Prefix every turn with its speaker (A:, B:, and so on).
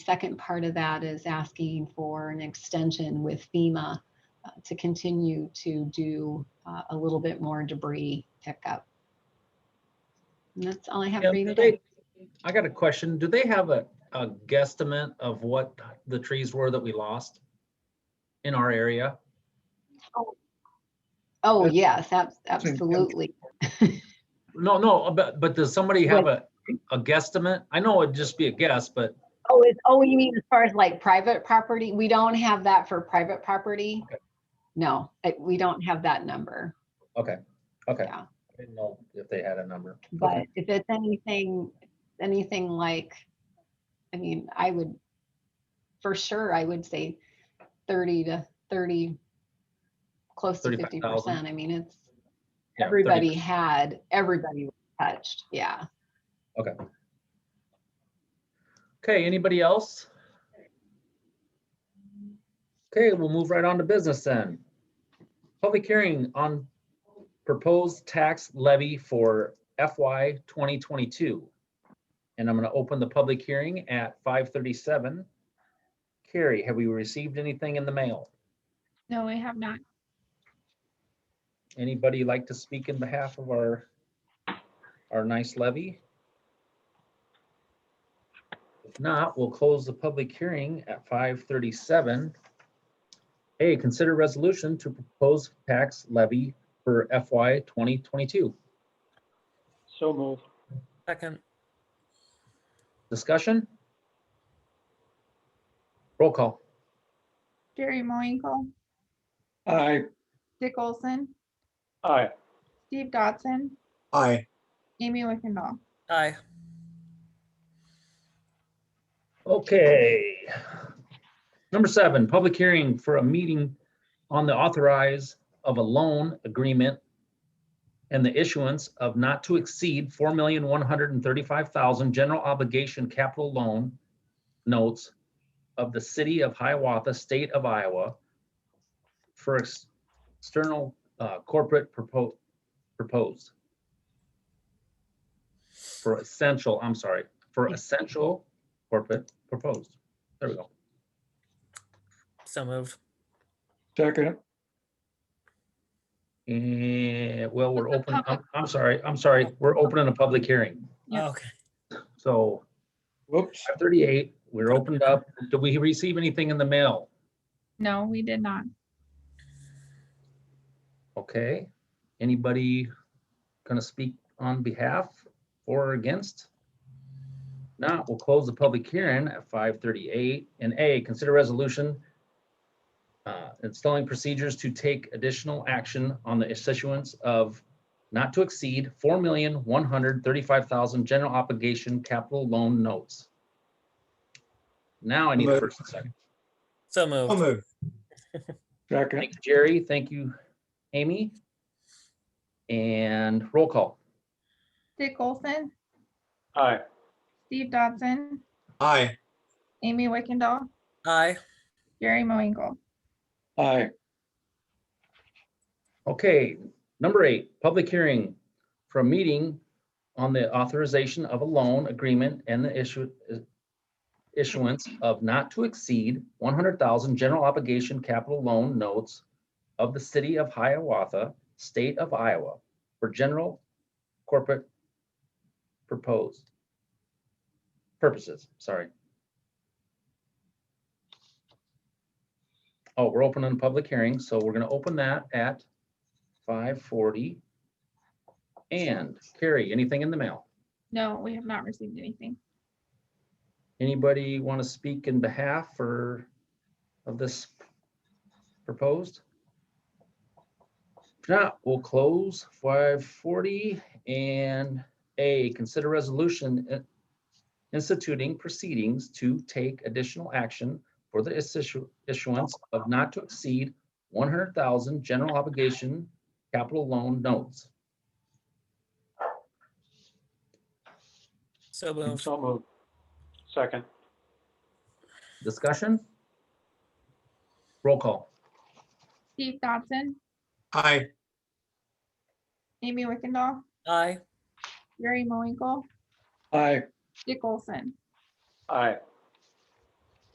A: second part of that is asking for an extension with FEMA uh, to continue to do uh, a little bit more debris pickup. And that's all I have
B: Yeah,
A: for you
B: do
A: today.
B: they- I got a question. Do they have a, a guesstimate of what the trees were that we lost in our area?
A: Oh, yes, ab-
C: in-
A: absolutely.
B: No, no, but, but does somebody have a, a guesstimate? I know it'd just be a guess, but
A: Oh, is, oh, you mean as far as like private property? We don't have that for private property.
B: Okay.
A: No, I- we don't have that number,
B: okay, okay.
A: Yeah.
B: I didn't know if they had a number.
A: but if it's anything, anything like, I mean, I would, for sure, I would say thirty to thirty, close to fifty
B: 35,000.
A: percent. I mean, it's,
B: Yeah, 30.
A: everybody had, everybody was touched, yeah.
B: Okay, anybody else? Okay, we'll move right on to business then. Public hearing on proposed tax levy for FY 2022. And I'm going to open the public hearing at 5:37. Carrie, have we received anything in the mail?
D: No, we have not.
B: Anybody like to speak in behalf of our, our nice levy? If not, we'll close the public hearing at five thirty-seven. A, consider resolution to propose tax levy for FY twenty twenty-two.
C: So move.
E: Second,
B: Discussion? Roll call.
D: Jerry Moinkle,
C: Aye.
D: Dick Olson,
C: Aye.
D: Steve Dodson,
F: Aye,
D: Amy Wickendall.
E: aye,
B: Okay. Number seven, public hearing for a meeting on the authorize of a loan agreement and the issuance of not to exceed four million, one hundred and thirty-five thousand general obligation capital loan notes of the city of Hiawatha, state of Iowa for ex- external uh, corporate propo- proposed. For essential, I'm sorry, for essential corporate proposed. There we go.
E: so moved.
C: Second.
B: And, Eh, well, we're
D: That's a
B: open, I'm,
D: public-
B: I'm sorry, I'm sorry, we're opening a public hearing.
D: Yeah.
E: Oh, Okay,
B: So
C: Whoops.
B: 38, we're opened up. Did we receive anything in the mail?
D: No, we did not.
B: Okay, anybody gonna speak on behalf or against? Not, we'll close the public hearing at five thirty-eight. And A, consider resolution uh, installing procedures to take additional action on the issuance of not to exceed four million, one hundred thirty-five thousand general obligation capital loan notes. Now I need a
F: Move.
B: first and second.
E: so
F: I'll
E: moved.
F: move.
C: Second.
B: Thank you, Jerry. Thank you, Amy. And roll call.
D: Dick Olson,
C: Aye.
D: Steve Dodson,
F: Aye,
D: Amy Wickendall,
E: Aye,
D: Jerry Moinkle.
C: Aye.
B: Okay, number eight, public hearing for a meeting on the authorization of a loan agreement and the issue issuance of not to exceed one hundred thousand general obligation capital loan notes of the city of Hiawatha, state of Iowa, for general corporate proposed purposes, sorry. Oh, we're opening a public hearing, so we're gonna open that at five forty. And Carrie, anything in the mail?
D: No, we have not received anything.
B: Anybody want to speak in behalf or of this proposed? If not, we'll close five forty and A, consider resolution uh, instituting proceedings to take additional action for the issu- issuance of not to exceed one hundred thousand general obligation capital loan notes.
E: so moved.
C: So move. Second.
B: Discussion? Roll call.
D: Steve Dodson,
F: aye,
D: Amy Wickendall,
E: Aye,
D: Jerry Moinkle,
C: Aye.
D: Dick Olson,
C: Aye.